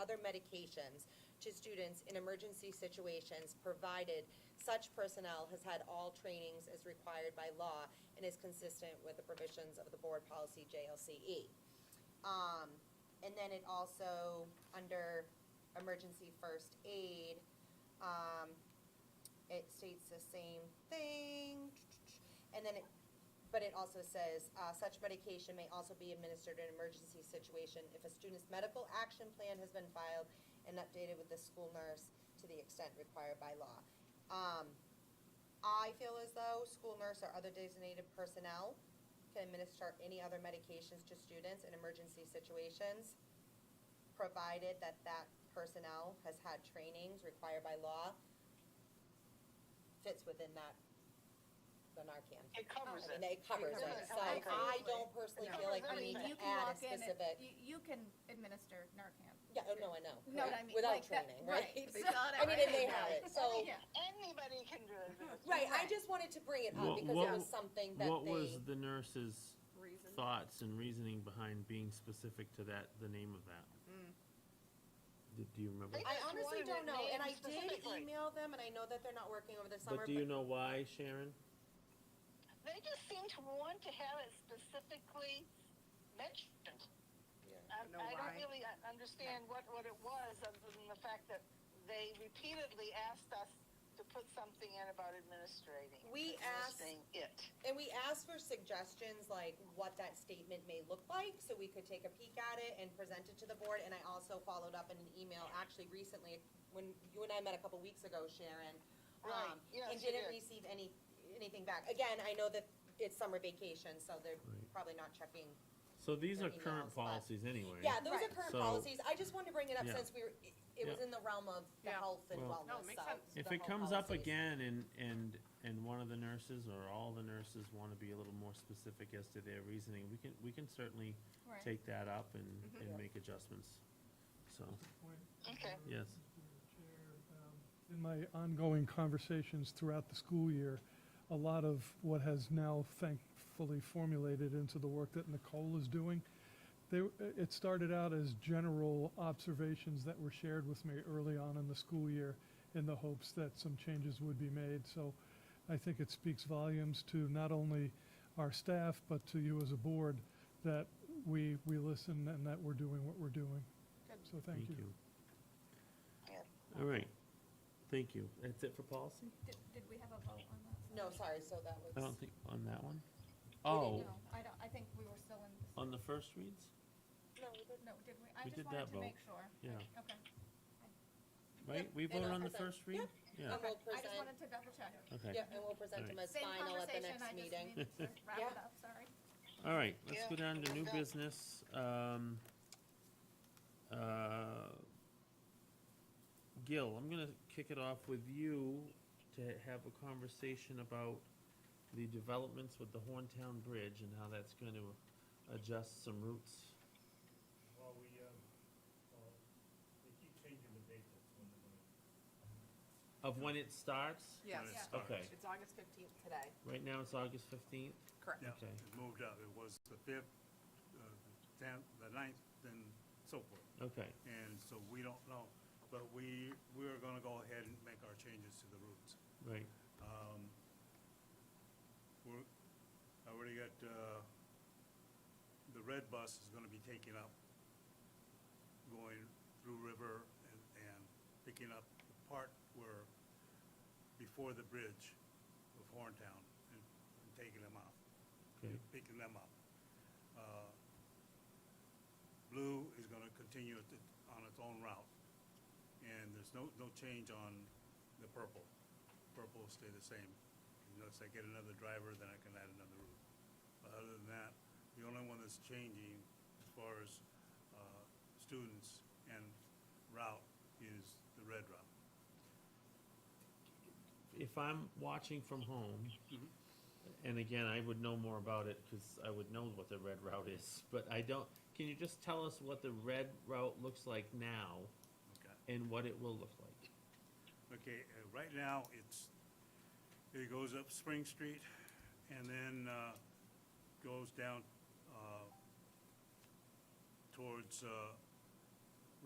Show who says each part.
Speaker 1: other medications to students in emergency situations, provided such personnel has had all trainings as required by law and is consistent with the provisions of the board policy JLCE. E. Um, and then it also, under emergency first aid, um, it states the same thing. And then it, but it also says, uh, such medication may also be administered in emergency situation if a student's medical action plan has been filed and updated with the school nurse to the extent required by law. Um, I feel as though school nurse or other designated personnel can administer any other medications to students in emergency situations, provided that that personnel has had trainings required by law, fits within that, the Narcan.
Speaker 2: It covers
Speaker 1: I
Speaker 2: it.
Speaker 1: mean, it covers it,
Speaker 2: It covers
Speaker 1: so
Speaker 2: it.
Speaker 1: I don't personally
Speaker 2: It
Speaker 1: feel like
Speaker 2: covers
Speaker 1: we need
Speaker 2: everything.
Speaker 1: to add a specific,
Speaker 3: You, you can administer Narcan.
Speaker 1: yeah, oh, no, I know.
Speaker 3: Know what
Speaker 1: right,
Speaker 3: I mean?
Speaker 1: Without
Speaker 3: Like that-
Speaker 1: training, right?
Speaker 3: right,
Speaker 1: So-
Speaker 3: so-
Speaker 1: I mean, and they have it, so,
Speaker 3: Yeah.
Speaker 2: Anybody can do it.
Speaker 1: right, I
Speaker 3: Right.
Speaker 1: just wanted to bring it up
Speaker 4: What-
Speaker 1: because
Speaker 4: what-
Speaker 1: it was something that
Speaker 4: What was
Speaker 1: they,
Speaker 4: the nurse's thoughts and reasoning behind being specific to that, the name of that? Do- Do you remember?
Speaker 2: I-
Speaker 1: Hmm. I honestly
Speaker 2: wanted
Speaker 1: don't
Speaker 2: it
Speaker 1: know, and I
Speaker 2: named
Speaker 1: did
Speaker 2: specifically.
Speaker 1: email them, and I know that they're not working over the summer,
Speaker 4: But do you know why, Sharon?
Speaker 2: They just seem to want to have it specifically mentioned. I,
Speaker 5: Know
Speaker 2: I don't
Speaker 5: why?
Speaker 2: really uh, understand what, what it was, other than the fact that they repeatedly asked us to put something in about administrating.
Speaker 1: We asked-
Speaker 2: administering It.
Speaker 1: And we asked for suggestions, like what that statement may look like, so we could take a peek at it and present it to the board. And I also followed up in an email, actually recently, when you and I met a couple weeks ago, Sharon. um,
Speaker 2: Right, yes,
Speaker 1: And
Speaker 2: you
Speaker 1: didn't
Speaker 2: did.
Speaker 1: receive any, anything back. Again, I know that it's summer vacation, so they're
Speaker 4: Right.
Speaker 1: probably not checking.
Speaker 4: So these are
Speaker 1: Emails,
Speaker 4: current
Speaker 1: but-
Speaker 4: policies anyway.
Speaker 1: Yeah, those are
Speaker 3: Right.
Speaker 1: current
Speaker 4: So-
Speaker 1: policies. I just wanted to bring it up
Speaker 4: Yeah.
Speaker 1: since we were, it- it was
Speaker 4: Yeah.
Speaker 1: in the realm of the
Speaker 5: Yeah.
Speaker 1: health and
Speaker 4: Well-
Speaker 1: wellness,
Speaker 5: No, it
Speaker 1: so.
Speaker 5: makes sense.
Speaker 4: If
Speaker 1: the
Speaker 4: it
Speaker 1: health
Speaker 4: comes up
Speaker 1: policies.
Speaker 4: again and, and, and one of the nurses or all the nurses want to be a little more specific as to their reasoning, we can, we can certainly
Speaker 3: Right.
Speaker 4: take that up and,
Speaker 1: Yeah.
Speaker 4: and make adjustments. So,
Speaker 6: Point,
Speaker 2: Okay.
Speaker 4: yes,
Speaker 6: Mr. Chair, um, In my ongoing conversations throughout the school year, a lot of what has now thankfully formulated into the work that Nicole is doing, there, it started out as general observations that were shared with me early on in the school year in the hopes that some changes would be made. So I think it speaks volumes to not only our staff, but to you as a board, that we, we listen and that we're doing what we're doing. So
Speaker 4: thank you.
Speaker 2: Yeah.
Speaker 4: All right, thank you. That's it for policy?
Speaker 3: Did, did we have a vote on that?
Speaker 1: No, sorry, so that
Speaker 4: I
Speaker 1: was,
Speaker 4: don't think, on that one?
Speaker 3: No,
Speaker 4: Oh,
Speaker 3: I don't, I think we were still in,
Speaker 4: on the first reads?
Speaker 3: no, did we? I
Speaker 4: We
Speaker 3: just
Speaker 4: did that
Speaker 3: wanted to
Speaker 4: vote.
Speaker 3: make sure.
Speaker 4: Yeah,
Speaker 3: Okay.
Speaker 4: right? We
Speaker 1: and
Speaker 4: voted
Speaker 1: I'll
Speaker 4: on the
Speaker 1: present.
Speaker 4: first read? Yeah,
Speaker 1: And we'll
Speaker 3: I just
Speaker 1: present-
Speaker 3: wanted to double check.
Speaker 4: okay.
Speaker 1: yeah, and we'll present them as
Speaker 3: Same
Speaker 1: final at the
Speaker 3: conversation,
Speaker 1: next
Speaker 3: I just
Speaker 1: meeting.
Speaker 3: needed to wrap it
Speaker 1: Yeah.
Speaker 3: up, sorry.
Speaker 4: All right, let's
Speaker 2: Yeah,
Speaker 4: go down to new
Speaker 2: okay.
Speaker 4: business. Um, uh, Gil, I'm gonna kick it off with you to have a conversation about the developments with the Horntown Bridge and how that's gonna adjust some routes.
Speaker 7: Well, we, um, well, they keep changing the date that's when they're gonna.
Speaker 4: Of when it starts?
Speaker 5: Yes.
Speaker 7: when it
Speaker 3: Yeah.
Speaker 7: starts.
Speaker 4: Okay.
Speaker 5: It's August fifteenth today.
Speaker 4: Right now it's August fifteenth?
Speaker 5: Correct.
Speaker 7: Yeah,
Speaker 4: Okay.
Speaker 7: it moved up. It was the fifth, uh, the tenth, the ninth, and so forth.
Speaker 4: Okay,
Speaker 7: And so we don't know, but we, we are gonna go ahead and make our changes to the routes.
Speaker 4: right.
Speaker 7: Um, we're, I already got, uh, the red bus is gonna be taking up, going through river and, and picking up the part where, before the bridge of Horntown and, and taking them out.
Speaker 4: Okay.
Speaker 7: Picking them up. Uh, Blue is gonna continue it on its own route. And there's no, no change on the purple. Purple will stay the same. Unless I get another driver, then I can add another route. But other than that, the only one that's changing as far as, uh, students and route is the red route.
Speaker 4: if I'm watching from home, and again, I would know more about it because I would know what the red route is, but I don't, can you just tell us what the red route looks like now
Speaker 7: Okay.
Speaker 4: and what it will look like?
Speaker 7: Okay, uh, right now, it's, it goes up Spring Street and then, uh, goes down, uh, towards, uh,